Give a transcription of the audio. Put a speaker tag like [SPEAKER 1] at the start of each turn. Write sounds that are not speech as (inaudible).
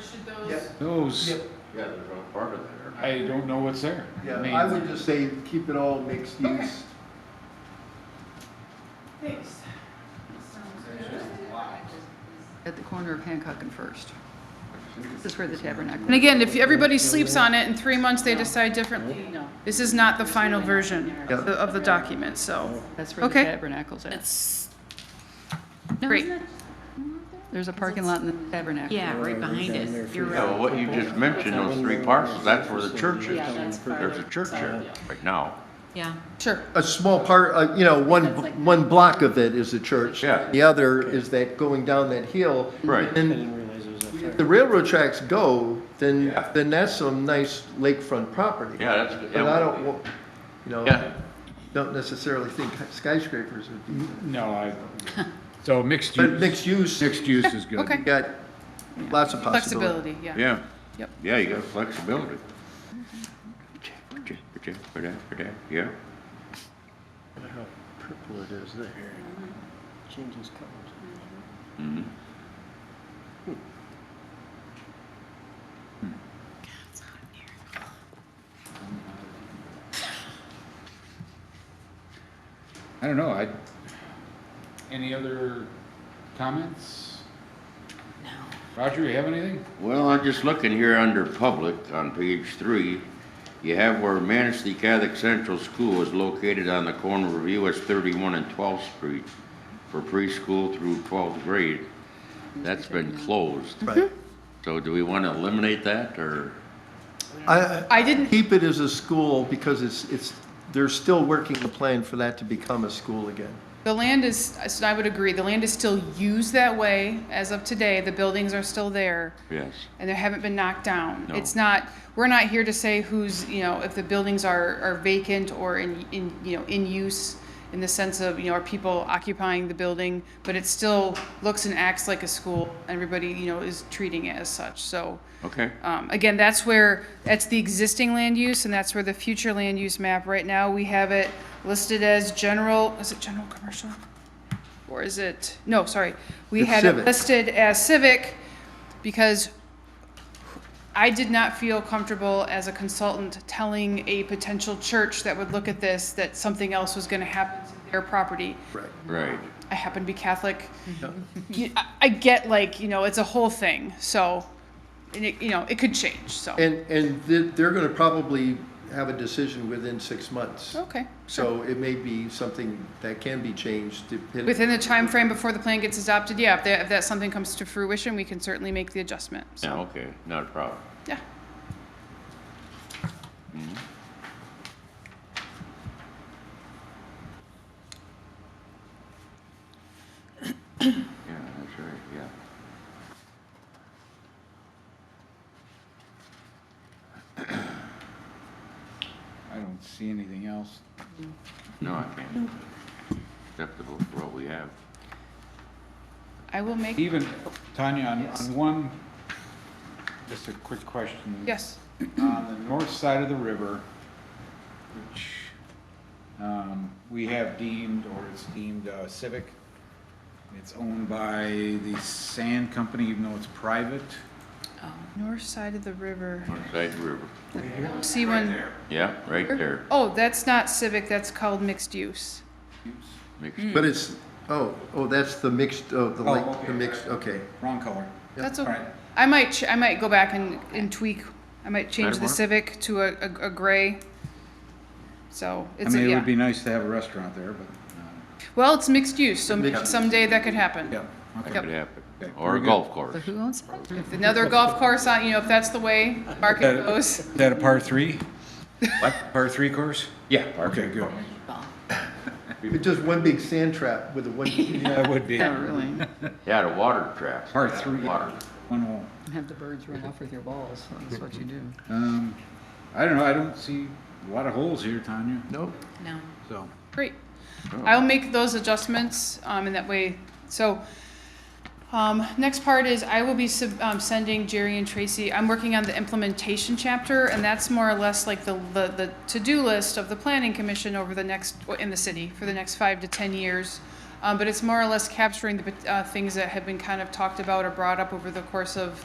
[SPEAKER 1] should those,
[SPEAKER 2] Yep.
[SPEAKER 3] Those,
[SPEAKER 2] Yep.
[SPEAKER 4] Yeah, there's no part of there.
[SPEAKER 3] I don't know what's there.
[SPEAKER 2] Yeah,
[SPEAKER 3] mean,
[SPEAKER 2] I would just say keep it all mixed
[SPEAKER 1] Okay.
[SPEAKER 2] use.
[SPEAKER 1] thanks. Sounds good.
[SPEAKER 5] at the corner of Hancock and First. This is where the tabernacle.
[SPEAKER 6] And again, if everybody sleeps on it, in three months they decide differently,
[SPEAKER 5] No,
[SPEAKER 6] this is not the final version
[SPEAKER 2] Yeah.
[SPEAKER 6] of the- of the document, so.
[SPEAKER 5] that's where the
[SPEAKER 6] Okay.
[SPEAKER 5] tabernacle's at.
[SPEAKER 7] Mm-hmm. It's,
[SPEAKER 5] No,
[SPEAKER 6] Great.
[SPEAKER 5] isn't it? There's a parking lot in the tabernacle.
[SPEAKER 7] yeah, right behind it. You're
[SPEAKER 4] Yeah, well,
[SPEAKER 7] right.
[SPEAKER 4] what you just mentioned, those three parcels, that's where the church is.
[SPEAKER 7] Yeah, that's
[SPEAKER 4] There's a
[SPEAKER 7] farther
[SPEAKER 4] church there right now.
[SPEAKER 7] Yeah.
[SPEAKER 6] Sure.
[SPEAKER 2] A small part, uh, you know, one, one block of it is the church.
[SPEAKER 4] Yeah.
[SPEAKER 2] The other is that going down that hill.
[SPEAKER 4] Right.
[SPEAKER 2] And if the railroad tracks go, then,
[SPEAKER 4] Yeah.
[SPEAKER 2] then that's some nice lakefront property.
[SPEAKER 4] Yeah, that's.
[SPEAKER 2] But I don't, wa- you
[SPEAKER 4] Yeah.
[SPEAKER 2] know, don't necessarily think skyscrapers would be. (laughs)
[SPEAKER 3] No, I, so mixed
[SPEAKER 2] But
[SPEAKER 3] use,
[SPEAKER 2] mixed use, you
[SPEAKER 3] mixed use is good.
[SPEAKER 6] Okay.
[SPEAKER 2] got lots of possibilities.
[SPEAKER 6] Flexibility, yeah.
[SPEAKER 4] Yeah.
[SPEAKER 6] Yep.
[SPEAKER 4] Yeah, you got flexibility. Yeah.
[SPEAKER 8] How purple it is there. Changes colors.
[SPEAKER 3] I don't know, I, any other comments? No. Roger, you have anything?
[SPEAKER 4] Well, I'm just looking here under public on page three. You have where Manistee Catholic Central School is located on the corner of US thirty-one and twelfth street for preschool through twelfth grade. That's been closed.
[SPEAKER 2] Right.
[SPEAKER 4] So do we want to eliminate that or?
[SPEAKER 2] I,
[SPEAKER 6] I didn't
[SPEAKER 2] keep it as a school because it's, it's, they're still working the plan for that to become a school again.
[SPEAKER 6] The land is, so I would agree, the land is still used that way as of today, the buildings are still there,
[SPEAKER 4] Yes.
[SPEAKER 6] and they haven't been knocked down.
[SPEAKER 4] No.
[SPEAKER 6] It's not, we're not here to say who's, you know, if the buildings are, are vacant or in, in, you know, in use in the sense of, you know, are people occupying the building, but it still looks and acts like a school, everybody, you know, is treating it as such, so.
[SPEAKER 4] Okay.
[SPEAKER 6] Um, again, that's where, that's the existing land use, and that's where the future land use map, right now, we have it listed as general, is it general commercial? Or is it, no, sorry, we
[SPEAKER 2] It's
[SPEAKER 6] had it
[SPEAKER 2] civic.
[SPEAKER 6] listed as civic, because I did not feel comfortable as a consultant telling a potential church that would look at this, that something else was gonna happen to their property.
[SPEAKER 2] Right.
[SPEAKER 4] Right.
[SPEAKER 6] I happen to be Catholic.
[SPEAKER 3] Mm-hmm.
[SPEAKER 6] You- I, I get like, you know, it's a whole thing, so, and it, you know, it could change, so.
[SPEAKER 2] And, and th- they're going to probably have a decision within six months.
[SPEAKER 6] Oh, Okay.
[SPEAKER 2] So it may be something that can be changed depending.
[SPEAKER 6] Within the time frame before the plan gets adopted, yeah, if that, if that something comes to fruition, we can certainly make the adjustment, so,
[SPEAKER 4] Yeah, okay, not a problem.
[SPEAKER 6] yeah.
[SPEAKER 4] Yeah, that's right, yeah.
[SPEAKER 3] I don't see anything else.
[SPEAKER 4] No, I can't. Acceptable for what we have.
[SPEAKER 6] I will make,
[SPEAKER 3] Even, Tanya, on, on one, just a quick question.
[SPEAKER 6] yes,
[SPEAKER 3] on the north side of the river, which um, we have deemed, or it's deemed uh, civic. It's owned by the sand company, even though it's private.
[SPEAKER 6] north side of the river,
[SPEAKER 4] Northside River.
[SPEAKER 6] see when,
[SPEAKER 4] Yeah, right there.
[SPEAKER 6] oh, that's not civic, that's called mixed use.
[SPEAKER 4] Mixed
[SPEAKER 2] But it's, oh, oh, that's the mixed, oh, the
[SPEAKER 3] Oh,
[SPEAKER 2] like,
[SPEAKER 3] okay.
[SPEAKER 2] the mixed, okay.
[SPEAKER 3] Wrong color.
[SPEAKER 6] That's
[SPEAKER 3] All
[SPEAKER 6] okay.
[SPEAKER 3] right.
[SPEAKER 6] I might, ch- I might go back and, and tweak, I might change
[SPEAKER 4] That'll
[SPEAKER 6] the
[SPEAKER 4] work.
[SPEAKER 6] civic to a, a, a gray. So,
[SPEAKER 3] I
[SPEAKER 6] it's, a-
[SPEAKER 3] mean, it would be
[SPEAKER 6] yeah,
[SPEAKER 3] nice to have a restaurant there, but, uh,
[SPEAKER 6] well, it's mixed use, so
[SPEAKER 2] Mixed-
[SPEAKER 6] someday that could happen.
[SPEAKER 3] yeah, okay.
[SPEAKER 4] That
[SPEAKER 6] Yep.
[SPEAKER 4] could happen.
[SPEAKER 3] Okay,
[SPEAKER 4] Or
[SPEAKER 3] very
[SPEAKER 4] a
[SPEAKER 3] good.
[SPEAKER 4] golf
[SPEAKER 5] So
[SPEAKER 4] course.
[SPEAKER 5] who owns that?
[SPEAKER 6] If
[SPEAKER 5] (laughs)
[SPEAKER 6] Another golf course on, you know, if that's the way market
[SPEAKER 3] That-
[SPEAKER 6] goes. (laughs)
[SPEAKER 3] Is that a par three? What? Par three course?
[SPEAKER 4] Yeah.
[SPEAKER 3] Okay, good.
[SPEAKER 2] It's just one big sand trap with a one,
[SPEAKER 3] That would
[SPEAKER 6] (laughs)
[SPEAKER 3] be.
[SPEAKER 5] Yeah, (laughs) really.
[SPEAKER 4] Yeah, the water trap.
[SPEAKER 3] Par three,
[SPEAKER 4] Water.
[SPEAKER 3] one hole.
[SPEAKER 5] Have the birds run off with your balls, that's what you do.
[SPEAKER 3] Um, I don't know, I don't see a lot of holes here, Tanya,
[SPEAKER 2] no,
[SPEAKER 7] No.
[SPEAKER 3] so.
[SPEAKER 6] Great. I'll make those adjustments, um, in that way, so, um, next part is I will be sub, um, sending Jerry and Tracy, I'm working on the implementation chapter, and that's more or less like the, the, the to-do list of the planning commission over the next, in the city, for the next five to ten years. Um, but it's more or less capturing the, uh, things that have been kind of talked about or brought up over the course of